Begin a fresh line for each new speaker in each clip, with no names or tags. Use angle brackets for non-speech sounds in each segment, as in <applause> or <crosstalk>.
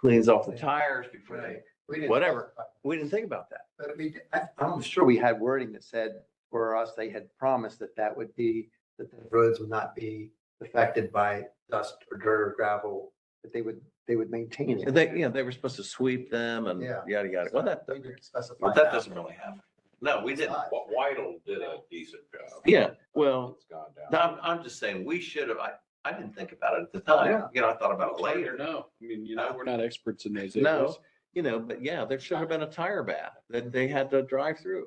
cleans off the tires before they,
Right. We didn't
Whatever.
specify,
we didn't think about that.
But I mean, I, I'm sure we had wording that said, for us, they had promised that that would be, that the roads would not be affected by dust or dirt or gravel, that they would, they would maintain it.
And They, you know, they were supposed to sweep them and
Yeah.
yada, yada. Well, that,
We didn't specify
but that doesn't really happen. No, we didn't.
It's not.
Whittle did a decent job.
Yeah, well,
It's gone down.
no, I'm, I'm just saying, we should have, I, I didn't think about it at the time.
Yeah.
You know, I thought about it later.
No, I mean, you know, we're not experts in those
No,
areas.
you know, but yeah, there should have been a tire bath that they had to drive through.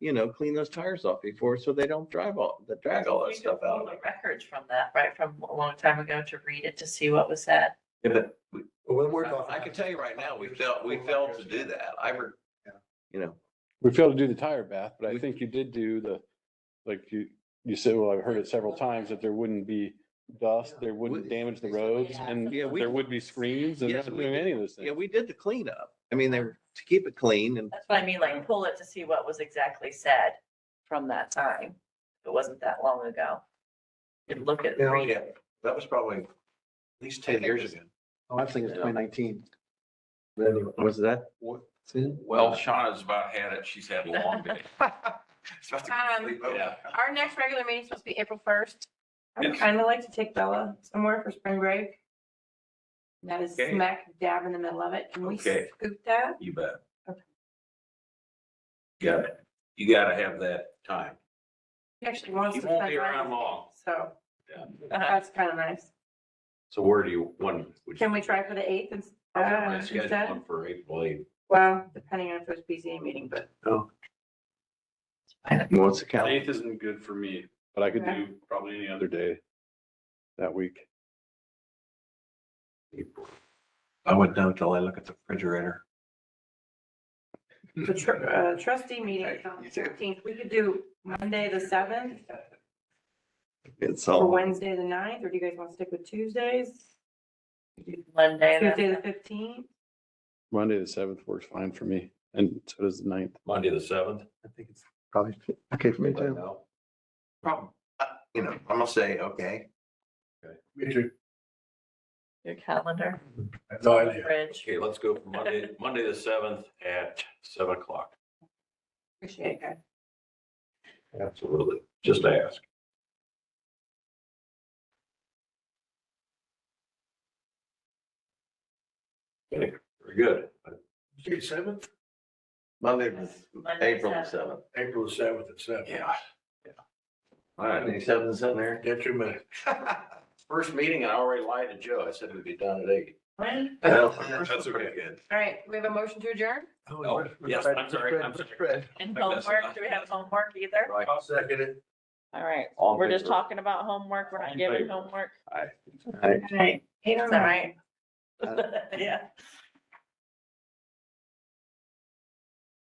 You know, clean those tires off before so they don't drive all, that drag all
We
that
could
stuff out.
pull the Records from that, right, from a long time ago to read it to see what was said.
Yeah, but we-
We'll work off.
I I can tell you right now, we failed, we failed to do that. I, re-
Yeah.
you know,
We failed to do the tire bath, but I
We-
think you did do the, like you, you said, well, I've heard it several times that there wouldn't be dust, there wouldn't
We-
damage the
Yeah.
roads and
Yeah, we-
there would be screens and
Yes,
not
we
doing
did.
any of those
yeah,
things.
we did the cleanup. I mean, they were to keep it clean and,
That's what I mean, like pull it to see what was exactly said from that time. It wasn't that long ago. And look at,
Yeah.
read
yeah,
it.
that was probably at least ten years ago.
Oh, I think it's twenty nineteen. But anyway.
Was that?
Well, Shauna's about had it. She's had a
<laughs>
long day. It's about to
Um,
sleep over.
yeah.
Our next regular meeting is supposed to be April first. I would
Yes.
kind of like to take Bella somewhere for spring break. That is
Okay.
smack dab in the middle of it. Can we
Okay.
scoop that?
You bet.
Okay.
Got it. You gotta have that time.
She actually wants
You
to
won't
spend.
be around
time,
long.
So
Uh-huh.
that's kind of nice.
So where do you, when? would you-
Can we try for the eighth ins-
I was gonna
uh,
schedule
instead?
one For April eighth.
Well, depending on if there's BZA meeting, but
What's the count?
isn't good for me, but I could
Okay.
do probably any other day that week.
I wouldn't know until I look at the refrigerator.
the tr- uh, trustee meeting is on
You
the
too.
fourteenth. We could do Monday, the seventh,
It's
Oh.
or
all,
Wednesday, the ninth, or do you guys want to stick with Tuesdays?
Monday. that's-
Tuesday, the fifteenth?
Monday, the seventh works fine for me and so does the ninth.
Monday, the seventh.
I think it's probably okay for me
Let
too.
know.
problem. Uh, You know, I'm gonna say, okay,
Your calendar,
No
Bridge.
Okay, let's go for Monday, Monday, the seventh at seven o'clock.
Appreciate it, guys.
Absolutely. Just ask. Okay, Very good.
seventh,
Monday, was
Monday,
April the
seventh.
seventh.
April the seventh at seven.
Yeah. yeah. All right.
Any sevens in there?
Get your minute.
First meeting, I already lied to Joe. I said we'd be done at eight.
When?
That's okay. Good.
All right, we have a motion to adjourn?
Oh, yes, I'm sorry, I'm sorry.
And homework, do we have homework either?
Right.
I'll second it.
All right,
<laughs> All in
we're just
favor?
talking about homework, we're
All
not
in
giving
favor?
homework.
Aye.
All right.
Is that right?
Uh,
<laughs> Yeah.